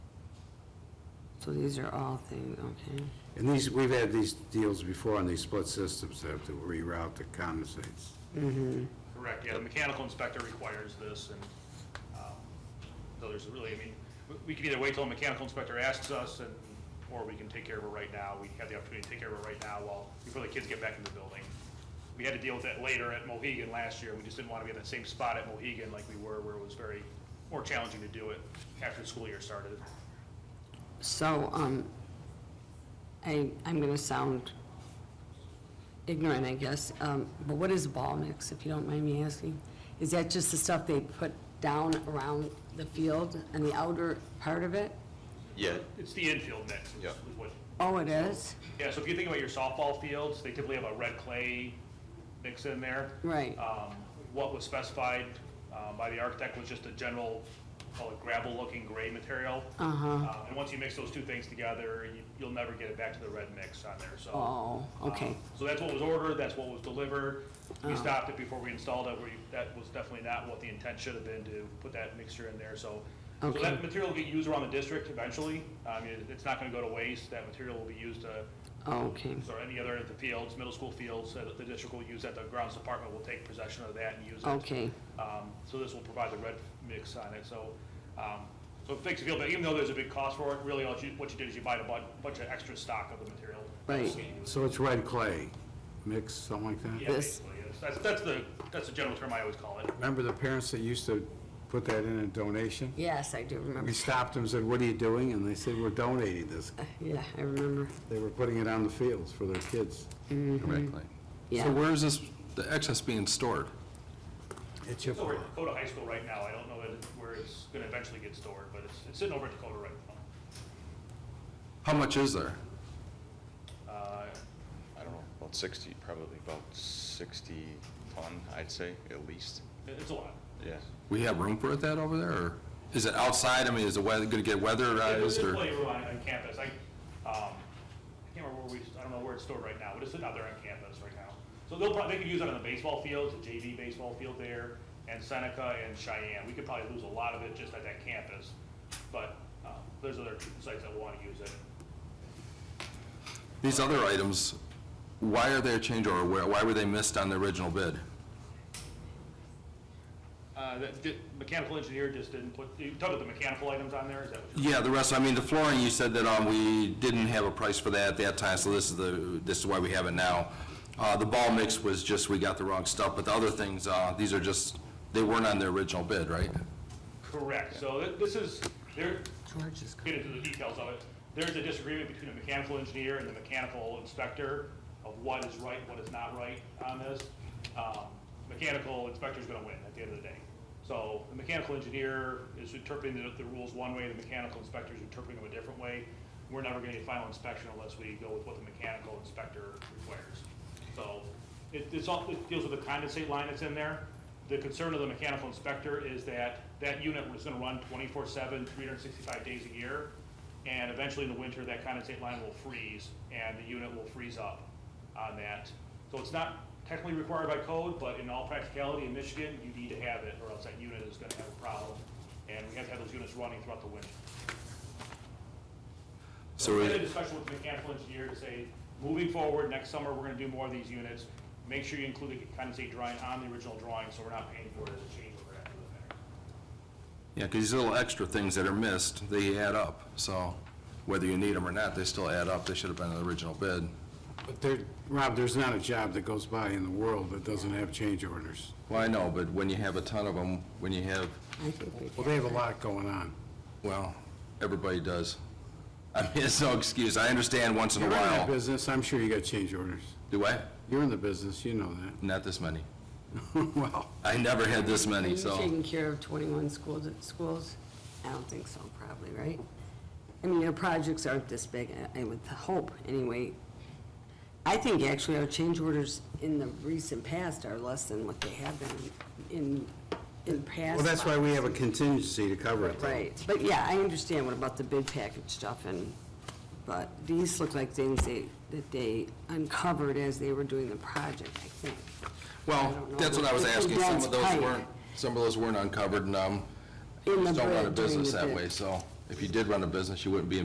So these are all things, okay. And these, we've had these deals before on these split systems, that have to reroute the condensates. Correct, yeah, the mechanical inspector requires this, and, um, so there's really, I mean, we- we could either wait till the mechanical inspector asks us, and, or we can take care of it right now, we have the opportunity to take care of it right now while, before the kids get back in the building. We had to deal with that later at Mohegan last year, we just didn't want to be in that same spot at Mohegan like we were, where it was very, more challenging to do it after the school year started. So, um, I, I'm gonna sound ignorant, I guess, um, but what is ball mix, if you don't mind me asking? Is that just the stuff they put down around the field and the outer part of it? Yeah, It's the infield mix, is- Yeah. is what Oh, it is? Yeah, so if you think about your softball fields, they typically have a red clay mix in there. Right. Um, What was specified um, by the architect was just a general, call it gravel-looking gray material. Uh-huh. Uh, And once you mix those two things together, you- you'll never get it back to the red mix on there, so. Oh, okay. Um, So that's what was ordered, that's what was delivered. Oh. We stopped it before we installed it, we, that was definitely not what the intent should have been to put that mixture in there, so. So Okay. that material will get used around the district eventually, I mean, it's not gonna go to waste, that material will be used to Okay, or any other of the fields, middle school fields, that the district will use, that the grounds department will take possession of that and use it. okay, Um, So this will provide the red mix on it, so, um, so it makes it feel, but even though there's a big cost for it, really, all you, what you did is you buy a bu- bunch of extra stock of the material. right. So it's red clay mix, something like that? Yeah, This- basically, yes. That's, that's the, that's the general term I always call it. Remember the parents that used to put that in a donation? Yes, I do We remember. stopped them and said, what are you doing? And they said, we're donating this. Yeah, I remember. They were putting it on the fields for their kids. correctly. Mm. Yeah. So where is this, the excess being stored? At It's over Chippewa. at Dakota High School right now, I don't know that it- where it's gonna eventually get stored, but it's, it's sitting over at Dakota right now. How much is there? Uh, I don't know, about 60, probably about 60 ton, I'd say, at least, it- It's a lot. yeah. We have room for that over there, or is it outside? I mean, is the weather, gonna get weatherized, It's a or? playroom on, on campus, I, um, I can't remember where we, I don't know where it's stored right now, but it's out there on campus right now. So they'll probably, they could use it on the baseball field, the JV baseball field there, and Seneca and Cheyenne, we could probably lose a lot of it just at that campus, but, um, there's other sites that wanna use it. These other items, why are they a change order? Why why were they missed on the original bid? Uh, that, di- mechanical engineer just didn't put, you talked about the mechanical items on there, is that what you're? Yeah, the rest, I mean, the flooring, you said that um, we didn't have a price for that at that time, so this is the, this is why we have it now. Uh, The ball mix was just, we got the wrong stuff, but the other things, uh, these are just, they weren't on the original bid, right? Correct, so th- this is, there, George is, get into the details of it. There's a disagreement between a mechanical engineer and the mechanical inspector of what is right, what is not right on this. Um, Mechanical inspector's gonna win at the end of the day. So the mechanical engineer is interpreting the, the rules one way, the mechanical inspector is interpreting them a different way. We're never gonna get final inspection unless we go with what the mechanical inspector requires. So it, it's all, it deals with the condensate line that's in there. The concern of the mechanical inspector is that that unit was gonna run 24/7, 365 days a year. And eventually in the winter, that condensate line will freeze and the unit will freeze up on that. So it's not technically required by code, but in all practicality in Michigan, you need to have it or else that unit is gonna have a problem. And we have to have those units running throughout the winter. So So we had a is- discussion with the mechanical engineer to say, moving forward, next summer, we're gonna do more of these units. Make sure you include the condensate drawing on the original drawing, so we're not paying for it as a change order after the fact. yeah, because these little extra things that are missed, they add up, so whether you need them or not, they still add up, they should have been in the original bid. But there, Rob, there's not a job that goes by in the world that doesn't have change orders. Well, I know, but when you have a ton of them, when you have, I think we Well, they have a lot going on. well, everybody does. I mean, it's no excuse, I understand once in a You're in that while. business, I'm sure you got change orders. Do I? You're in the business, you know that. Not this many. Well, I never had this Are you many, so. taking care of 21 schools, schools? I don't think so, probably, right? I mean, your projects aren't this big, I- I would hope, anyway. I think actually our change orders in the recent past are less than what they have been in, in past. well, that's why we have a contingency to cover it. though. Right, but yeah, I understand what about the bid package stuff and, but these look like things they, that they uncovered as they were doing the project, I think. I Well, don't know. that's what I was It's a asking, some dense of those pipe. weren't, some of those weren't uncovered, and, um, In you the just don't run a bid, during the business that bid. way, so. If you did run a business, you wouldn't be